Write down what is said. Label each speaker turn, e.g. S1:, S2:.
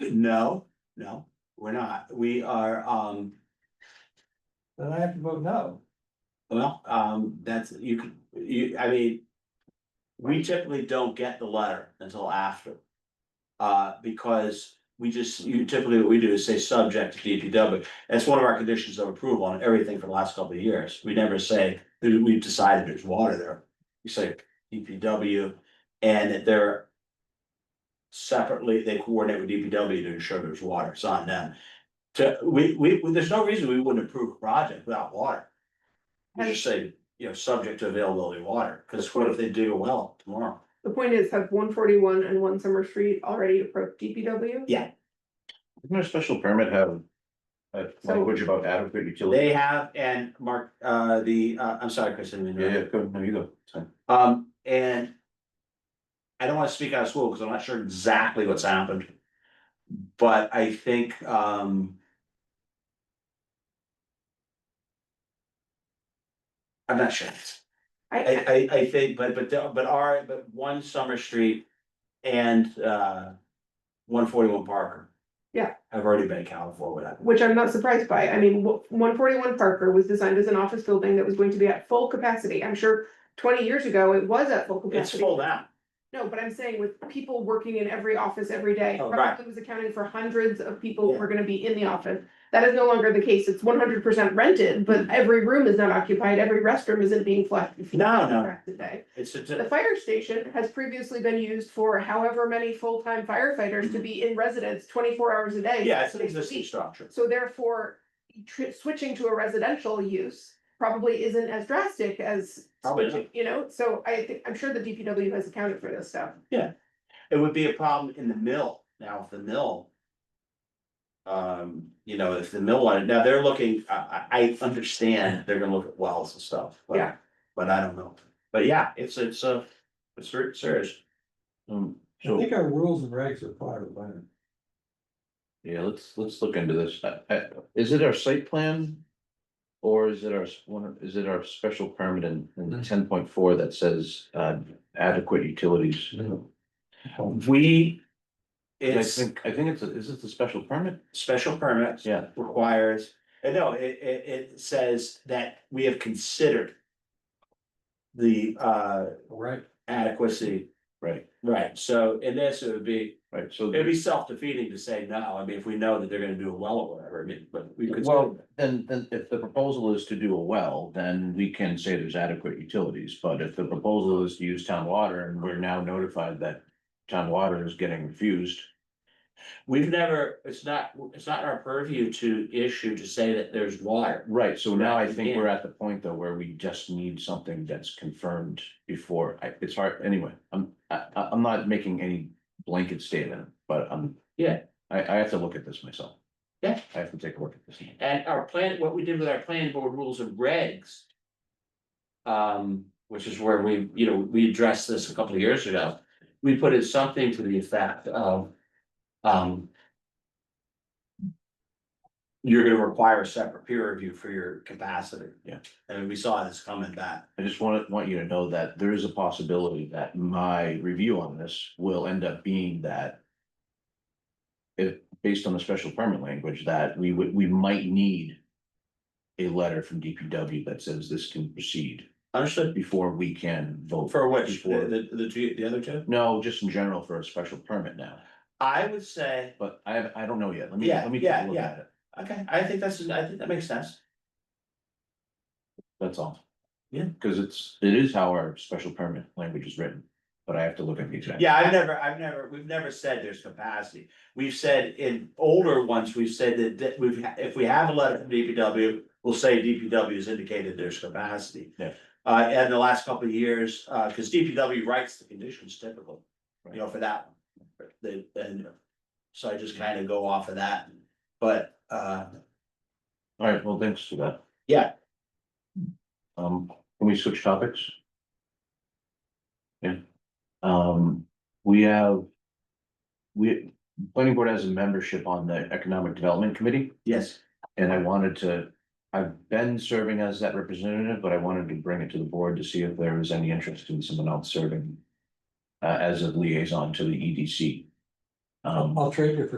S1: No, no, we're not. We are, um,
S2: Then I have to vote no.
S1: well, um, that's, you can, you, I mean. We typically don't get the letter until after. Uh, because we just, you typically what we do is say subject to DPW. That's one of our conditions of approval on everything for the last couple of years. We never say that we've decided there's water there. We say DPW and that they're. Separately, they coordinate with DPW to ensure there's water. It's on them. To, we, we, there's no reason we wouldn't approve a project without water. We just say, you know, subject to availability of water, because what if they dig a well tomorrow?
S3: The point is, have one forty-one and one Summer Street already approached DPW?
S1: Yeah.
S4: Doesn't our special permit have a
S3: So-
S4: language about adequate utility?
S1: They have, and Mark, uh, the, uh, I'm sorry, Chris, I didn't mean to
S4: Yeah,
S1: interrupt.
S4: yeah, go, no, you go. Sorry.
S1: Um, and. I don't wanna speak out of school, cause I'm not sure exactly what's happened. But I think, um. I'm not sure.
S3: I,
S1: I, I, I think, but, but, the- but our, but one Summer Street and, uh, one forty-one Parker.
S3: Yeah.
S1: Have already been accounted for with that.
S3: which I'm not surprised by, I mean, one forty-one Parker was designed as an office building that was going to be at full capacity, I'm sure twenty years ago, it was at full
S1: It's
S3: capacity.
S1: full now.
S3: No, but I'm saying with people working in every office every day,
S1: Oh, right.
S3: probably was accounting for hundreds of people who
S1: Yeah.
S3: are gonna be in the office. That is no longer the case, it's one hundred percent rented, but every room is not occupied, every restroom isn't being flushed.
S1: No, no.
S3: Today.
S1: It's, it's,
S3: The fire station has previously been used for however many full-time firefighters to be in residence twenty-four hours a day.
S1: yeah, it's an
S3: six days a
S1: existing
S3: week.
S1: structure.
S3: So therefore, tr- switching to a residential use probably isn't as drastic as.
S1: Probably
S3: switching, You know, so I think, I'm sure the DPW has accounted for this stuff.
S1: It would be a problem in the mill, now if the mill. Um, you know, if the mill wanted, now they're looking, I, I, I understand they're gonna look at wells and stuff, but,
S3: Yeah.
S1: but I don't know. But yeah, it's, it's a, it's ser- serious.
S4: Um,
S2: I
S4: So,
S2: think our rules and regs apply to that.
S4: yeah, let's, let's look into this. Uh, uh, Is it our site plan? Or is it our, s- one, is it our special permit in, in
S2: Mm.
S4: ten point four that says, uh, adequate utilities?
S1: We,
S4: I
S1: it's
S4: think, I think it's, a- is it the special permit?
S1: special permits
S4: Yeah.
S1: requires, and no, it, it, it says that we have considered. The, uh,
S2: Right.
S1: adequacy,
S4: Right,
S1: right, so in this, it would be
S4: right, so.
S1: It'd be self-defeating to say no, I mean, if we know that they're gonna do a well or whatever, I mean, but we could.
S4: Well, then, then if the proposal is to do a well, then we can say there's adequate utilities, but if the proposal is to use town water and we're now notified that. Town water is getting refused,
S1: We've never, it's not, it's not our purview to issue to say that there's water.
S4: right, so now I think we're at the point though where we just need something that's confirmed before, I, it's hard, anyway, I'm, I, I- I'm not making any blanket statement, but I'm.
S1: Yeah.
S4: I, I have to look at this myself.
S1: Yeah.
S4: I have to take a look at this.
S1: And our plan, what we did with our plan board rules and regs. Um, which is where we, you know, we addressed this a couple of years ago, we put in something to the effect of, um. You're gonna require a separate peer review for your capacity.
S4: Yeah.
S1: And we saw this coming back.
S4: I just want, want you to know that there is a possibility that my review on this will end up being that. If, based on the special permit language, that we would, we might need. A letter from DPW that says this can proceed
S1: Understood.
S4: before we can vote.
S1: For which,
S4: before-
S1: the, the, the two, the other two?
S4: No, just in general for a special permit now,
S1: I would say,
S4: but I, have- I don't know yet. Let me,
S1: Yeah,
S4: let me
S1: yeah,
S4: take a look
S1: yeah.
S4: at it.
S1: okay, I think that's, I think that makes sense.
S4: That's all.
S1: Yeah.
S4: Cause it's, it is how our special permit language is written, but I have to look at the exact.
S1: Yeah, I've never, I've never, we've never said there's capacity. We've said in older ones, we've said that, that we've, ha- if we have a letter from DPW, we'll say DPW has indicated there's capacity.
S4: Yeah.
S1: Uh, and the last couple of years, uh, cause DPW writes the conditions typical, you know, for that one. They, and, so I just kind of go off of that, but, uh,
S4: All right, well, thanks for that.
S1: Yeah.
S4: Um, can we switch topics? Yeah, um, we have. We, planning board has a membership on the Economic Development Committee,
S1: yes.
S4: and I wanted to. I've been serving as that representative, but I wanted to bring it to the board to see if there was any interest in someone else serving. Uh, as a liaison to the EDC. Um,
S2: I'll trade you for